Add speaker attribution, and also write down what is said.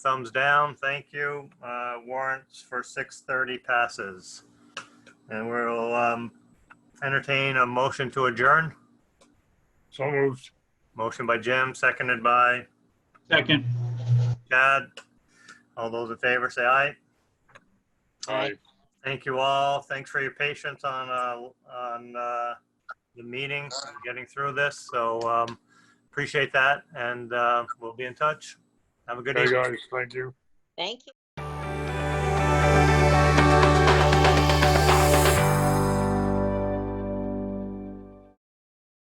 Speaker 1: Thumbs down, thank you. Uh, Warrants for 6:30 passes. And we'll um, entertain a motion to adjourn.
Speaker 2: So moved.
Speaker 1: Motion by Jim, seconded by
Speaker 3: Second.
Speaker 1: Chad. All those in favor, say aye.
Speaker 2: Aye.
Speaker 1: Thank you all. Thanks for your patience on, uh, on uh, the meeting, getting through this. So um, appreciate that, and uh, we'll be in touch. Have a good
Speaker 2: Hey,
Speaker 1: evening.
Speaker 2: guys, thank you.
Speaker 4: Thank you.